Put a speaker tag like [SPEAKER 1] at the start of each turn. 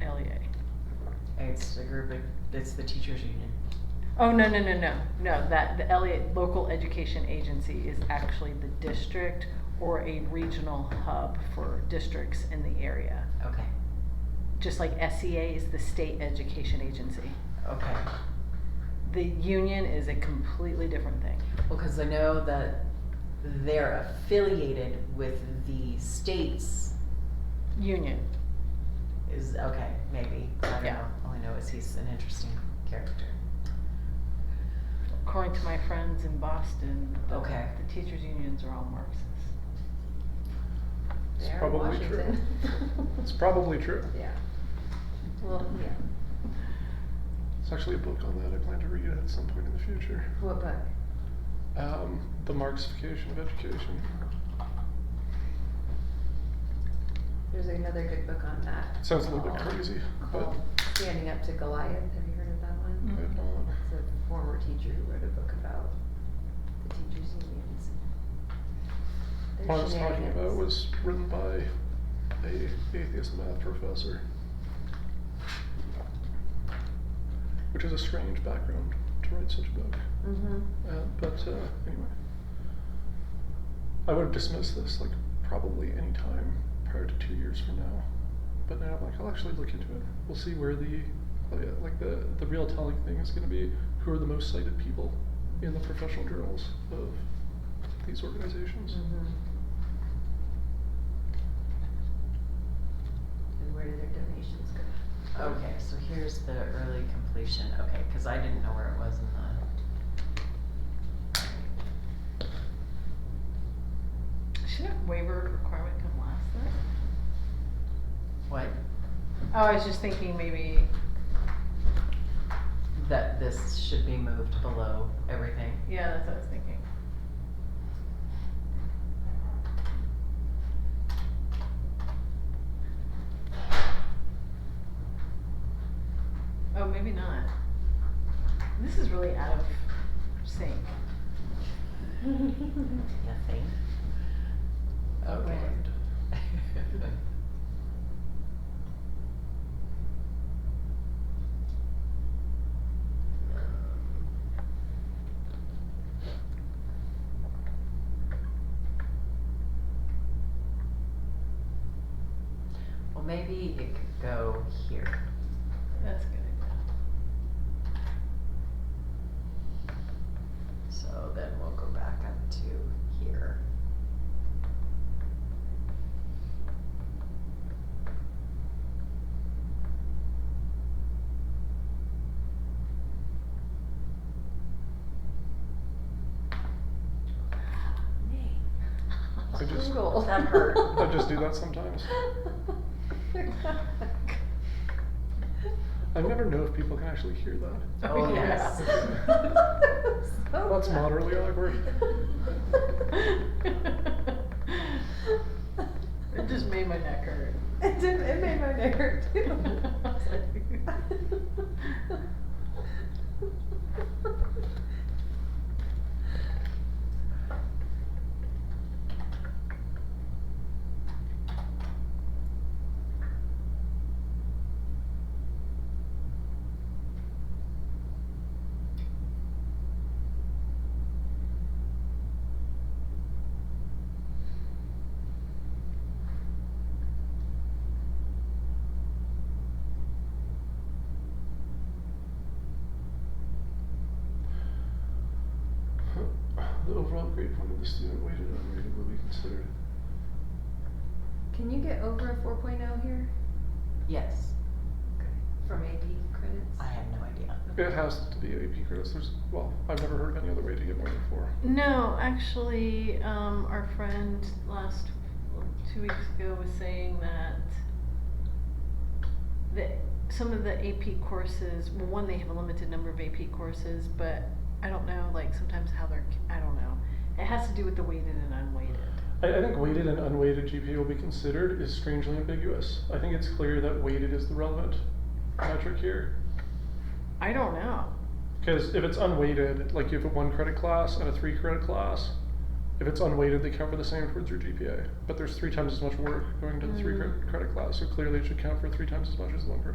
[SPEAKER 1] E
[SPEAKER 2] it's a group of, it's the teachers union.
[SPEAKER 1] Oh, no, no, no, no, no, that, the Elliott Local Education Agency is actually the district or a regional hub for districts in the area.
[SPEAKER 2] Okay,
[SPEAKER 1] Just like SEA is the state education agency.
[SPEAKER 2] okay.
[SPEAKER 1] The union is a completely different thing.
[SPEAKER 2] Well, cause I know that they're affiliated with the states
[SPEAKER 1] Union,
[SPEAKER 2] is, okay, maybe, I don't
[SPEAKER 1] Yeah.
[SPEAKER 2] know. All I know is he's an interesting character.
[SPEAKER 1] according to my friends in Boston, the,
[SPEAKER 2] Okay.
[SPEAKER 1] the teachers' unions are all Marxists.
[SPEAKER 3] It's
[SPEAKER 4] They're in
[SPEAKER 3] probably true.
[SPEAKER 4] Washington.
[SPEAKER 3] It's probably true.
[SPEAKER 4] Yeah. Well, yeah.
[SPEAKER 3] It's actually a book on that I plan to read at some point in the future.
[SPEAKER 4] What book?
[SPEAKER 3] Um, the Marxification of Education.
[SPEAKER 4] There's another good book on that.
[SPEAKER 3] Sounds a little bit
[SPEAKER 4] called-
[SPEAKER 3] crazy, but
[SPEAKER 4] Called Standing Up to Goliath. Have you heard of that one?
[SPEAKER 3] I uh, have not.
[SPEAKER 4] It's a former teacher who wrote a book about the teachers unions. Their
[SPEAKER 3] What I was talking about
[SPEAKER 4] shenanigans.
[SPEAKER 3] was written by a atheist math professor, which is a strange background to write such a book.
[SPEAKER 4] Mhm.
[SPEAKER 3] Uh, but uh, anyway, I would have dismissed this like probably any time prior to two years from now. But now I'm like, I'll actually look into it. We'll see where the like, uh, like the the real telling thing is going to be. Who are the most cited people in the professional journals of these organizations?
[SPEAKER 2] Mm.
[SPEAKER 4] Mhm. And where do their donations go?
[SPEAKER 2] Okay, so here's the early completion, okay, cause I didn't know where it was in the.
[SPEAKER 1] Shouldn't waiver requirement come last then?
[SPEAKER 2] What,
[SPEAKER 1] Oh, I was just thinking maybe,
[SPEAKER 2] that this should be moved below everything?
[SPEAKER 1] yeah, that's what I was thinking. Oh, maybe not. This is really out of sync.
[SPEAKER 2] Nothing. Okay.
[SPEAKER 1] Right.
[SPEAKER 2] Well, maybe it could go here.
[SPEAKER 1] That's a good. idea.
[SPEAKER 2] So then we'll go back up to here.
[SPEAKER 3] I just-
[SPEAKER 4] Google.
[SPEAKER 2] That hurt.
[SPEAKER 3] I just do that sometimes. I never know if people can actually hear that.
[SPEAKER 2] Oh,
[SPEAKER 1] yeah.
[SPEAKER 2] yes.
[SPEAKER 4] So
[SPEAKER 3] That's
[SPEAKER 4] bad.
[SPEAKER 3] moderately awkward.
[SPEAKER 1] It just made my neck hurt.
[SPEAKER 4] It did, it made my neck hurt too.
[SPEAKER 1] I was
[SPEAKER 3] The overall grade point of the student weighted and unrated will be considered.
[SPEAKER 4] Can you get over a 4.0 here?
[SPEAKER 2] Yes,
[SPEAKER 4] From AP credits?
[SPEAKER 2] I have no idea.
[SPEAKER 3] It has to be AP credits. There's well, I've never heard of any other way to get more than four.
[SPEAKER 1] No, actually, um, our friend last two weeks ago was saying that the some of the AP courses, well, one they have a limited number of AP courses, but I don't know, like sometimes how they're, I don't know. It has to do with the weighted and unweighted.
[SPEAKER 3] I, I think weighted and unweighted GPA will be considered is strangely ambiguous. I think it's clear that weighted is the relevant metric here.
[SPEAKER 1] I don't know.
[SPEAKER 3] Because if it's unweighted, like you have a one credit class and a three credit class, if it's unweighted, they count for the same towards your GPA. But there's three times as much work going to the three
[SPEAKER 1] Mm.
[SPEAKER 3] credit, credit class, so clearly it should count for three times as much as the one credit